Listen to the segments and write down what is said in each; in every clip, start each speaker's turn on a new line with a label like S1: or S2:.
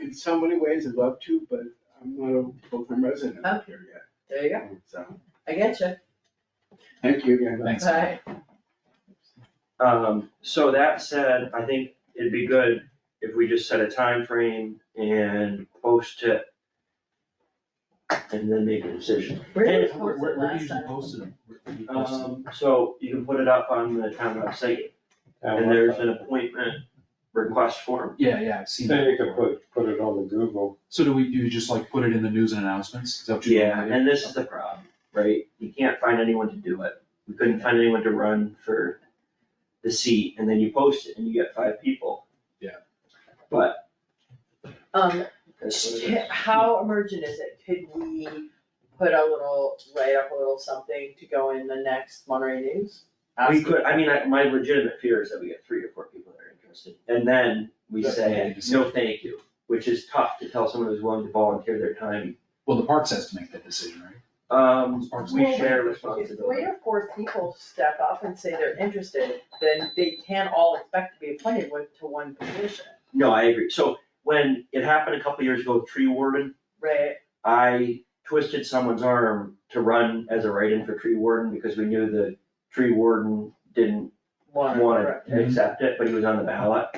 S1: in so many ways, I'd love to, but I'm not a full-time resident out here
S2: There you go,
S1: yet, so,
S2: I get you.
S1: thank you again.
S3: Thanks.
S2: Alright,
S4: Um, so that said, I think it'd be good if we just set a time frame and post it. And then make a decision.
S2: where
S4: Hey,
S2: did we
S3: Where,
S2: post
S3: where
S2: it
S3: where
S2: last
S3: do you usually
S2: time?
S3: post them? Where do you post them?
S4: Um, so you can put it up on the town website and there's an appointment request form.
S3: Yeah, yeah, I've seen that.
S5: Then you could
S3: before.
S5: put, put it on the Google.
S3: So do we, do you just like put it in the news and announcements? Is that what you
S4: Yeah,
S3: do?
S4: and this is the problem, right? You can't find anyone to do it. We couldn't find anyone to run for the seat and then you post it and you get five people.
S2: Um,
S4: That's what it is.
S2: ca- how emergent is it? Could we put a little, write up a little something to go in the next Monterey News?
S4: We could, I mean, I, my legitimate fear is that we get three or four people that are interested, and then we
S3: Yeah,
S4: say,
S3: yeah, just-
S4: no, thank you, which is tough to tell someone who's willing to volunteer their time.
S3: Well, the parks has to make that decision, right?
S4: Um,
S3: Parks
S4: we
S3: and-
S4: share
S2: If three
S4: responsibility.
S2: or four people step up and say they're interested, then they can all expect to be appointed with, to one position,
S4: No, I agree, so when it happened a couple years ago, with tree warden,
S2: right?
S4: I twisted someone's arm to run as a write-in for tree warden, because we knew the tree warden didn't
S2: One,
S4: wanted
S2: right.
S4: to accept it, but he was on the ballot.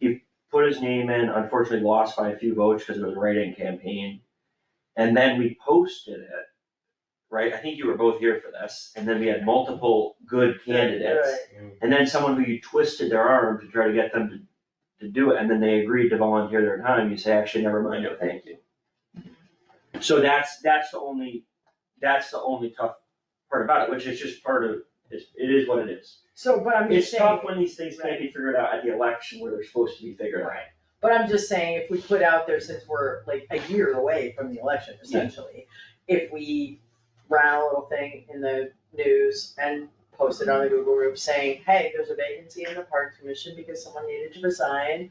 S4: He put his name in, unfortunately lost by a few votes because it was a write-in campaign. And then we posted it, right? I think you were both here for this. And then we had multiple good candidates.
S2: Right.
S4: And then someone who you twisted their arm to try to get them to, to do it, and then they agreed to volunteer their time, you say, actually, never mind, no, thank you. So that's, that's the only, that's the only tough part about it, which is just part of, it's- it is what it is.
S2: So, but I'm just
S4: It's
S2: saying.
S4: tough when these things can't be figured out at the election where they're supposed to be figured out.
S2: Right, but I'm just saying, if we put out there, since we're like a year away from the election essentially, if we ran a little thing in the news and posted on the Google group saying, hey, there's a vacancy in the Parks Commission because someone needed to resign.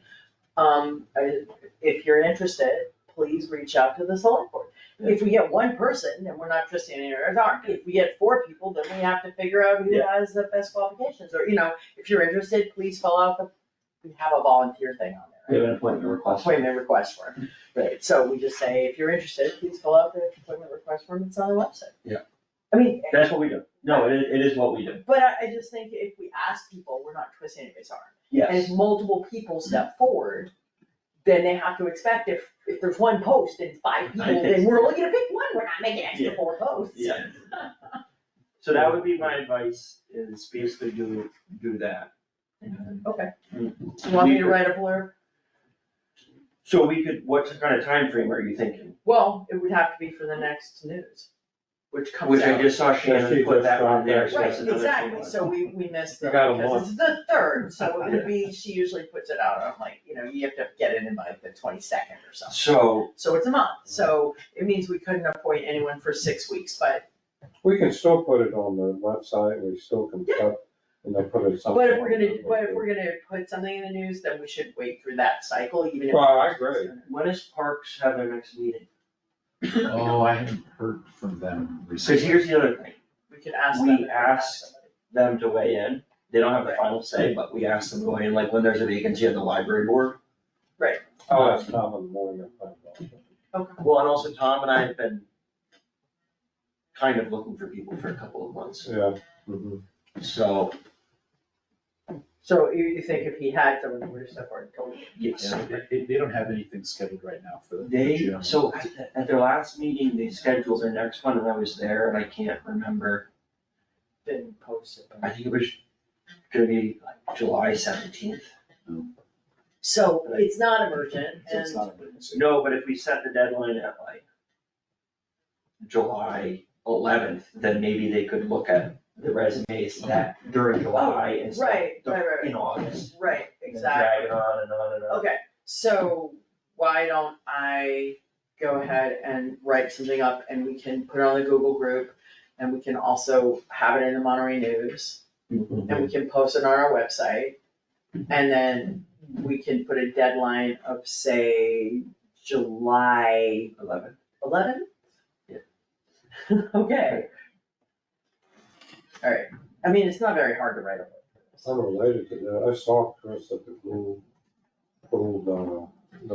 S2: Um, I- if you're interested, please reach out to the select board. If we get one person, then we're not trusting any of our arm. If we get four people, then we have to figure out who
S4: Yeah.
S2: has the best qualifications, or, you know, if you're interested, please fill out the, we have a volunteer thing on there, right?
S4: an appointment request.
S2: Appointment request form, right, so we just say, if you're interested, please fill out the appointment request form, it's on the website.
S3: Yeah.
S2: I mean,
S4: That's what we do. No, it is, it is what we do.
S2: but I, I just think if we ask people, we're not twisting anybody's arm. And if
S4: Yes.
S2: multiple people step forward, then they have to expect if, if there's one post and five
S4: I
S2: people,
S4: think
S2: then
S4: so.
S2: we're only gonna pick one, we're not making
S4: Yeah.
S2: extra four posts.
S4: Yeah. So that would be my advice is basically do, do that.
S2: Okay, you want me to write a blurb?
S4: So we could, what kind of time frame are you thinking?
S2: Well, it would have to be for the next news, which comes out.
S4: Which I just saw
S5: Yeah, she
S4: Shannon put
S5: just
S4: that on
S5: found
S4: there,
S5: that.
S4: so that's
S2: Right,
S4: another thing.
S2: exactly, so we, we missed
S5: You
S2: it
S5: got a
S2: because
S5: month.
S2: it's the third, so it would be, she usually puts it out, on like, you know, you have to get it in by the twenty-second or something.
S4: So,
S2: So it's a month, so it means we couldn't appoint anyone for six weeks, but,
S5: We can still put it on the website, we still can put, and then put it somewhere.
S2: but if we're gonna, but if we're gonna put something in the news, then we should wait through that cycle, even if.
S5: Well, I agree.
S4: when is Parks have their next meeting?
S3: Oh, I haven't heard from them recently.
S4: Cause here's the other thing,
S2: We could ask
S4: We
S2: them. if they have
S4: asked-
S2: somebody.
S4: them to weigh in. They don't have the final say, but we ask them to weigh in, like when there's a vacancy at the library board.
S5: Oh, that's common morning. I think.
S4: Well, and also Tom and I have been kind of looking for people for a couple of months,
S5: Yeah,
S4: so,
S2: So you, you think if he had someone, we would have stepped forward and told him?
S4: yes.
S3: Yeah, They, they don't have anything scheduled right now for the. for
S4: They,
S3: June.
S4: so at, the- at their last meeting, they scheduled their next one and I was there and I can't remember.
S2: Been posted.
S4: I think it was gonna be like July seventeenth.
S2: So it's not emergent
S3: So
S2: and
S3: it's not emergency.
S4: No, but if we set the deadline at like July eleventh, then maybe they could look at the resumes that during July instead
S2: Right, right, right,
S4: of in August.
S2: right,
S4: and
S2: exactly.
S4: Drag it on and on and on.
S2: Okay, so why don't I go ahead and write something up and we can put it on the Google group and we can also have it in the Monterey News
S3: Mm-hmm.
S2: and we can post it on our website. And then we can put a deadline of say July
S4: Eleven.
S2: eleventh?
S4: Yeah.
S2: Okay. Alright, I mean, it's not very hard to write up.
S5: I'm related to that, I saw Chris at the Globe bulldozer.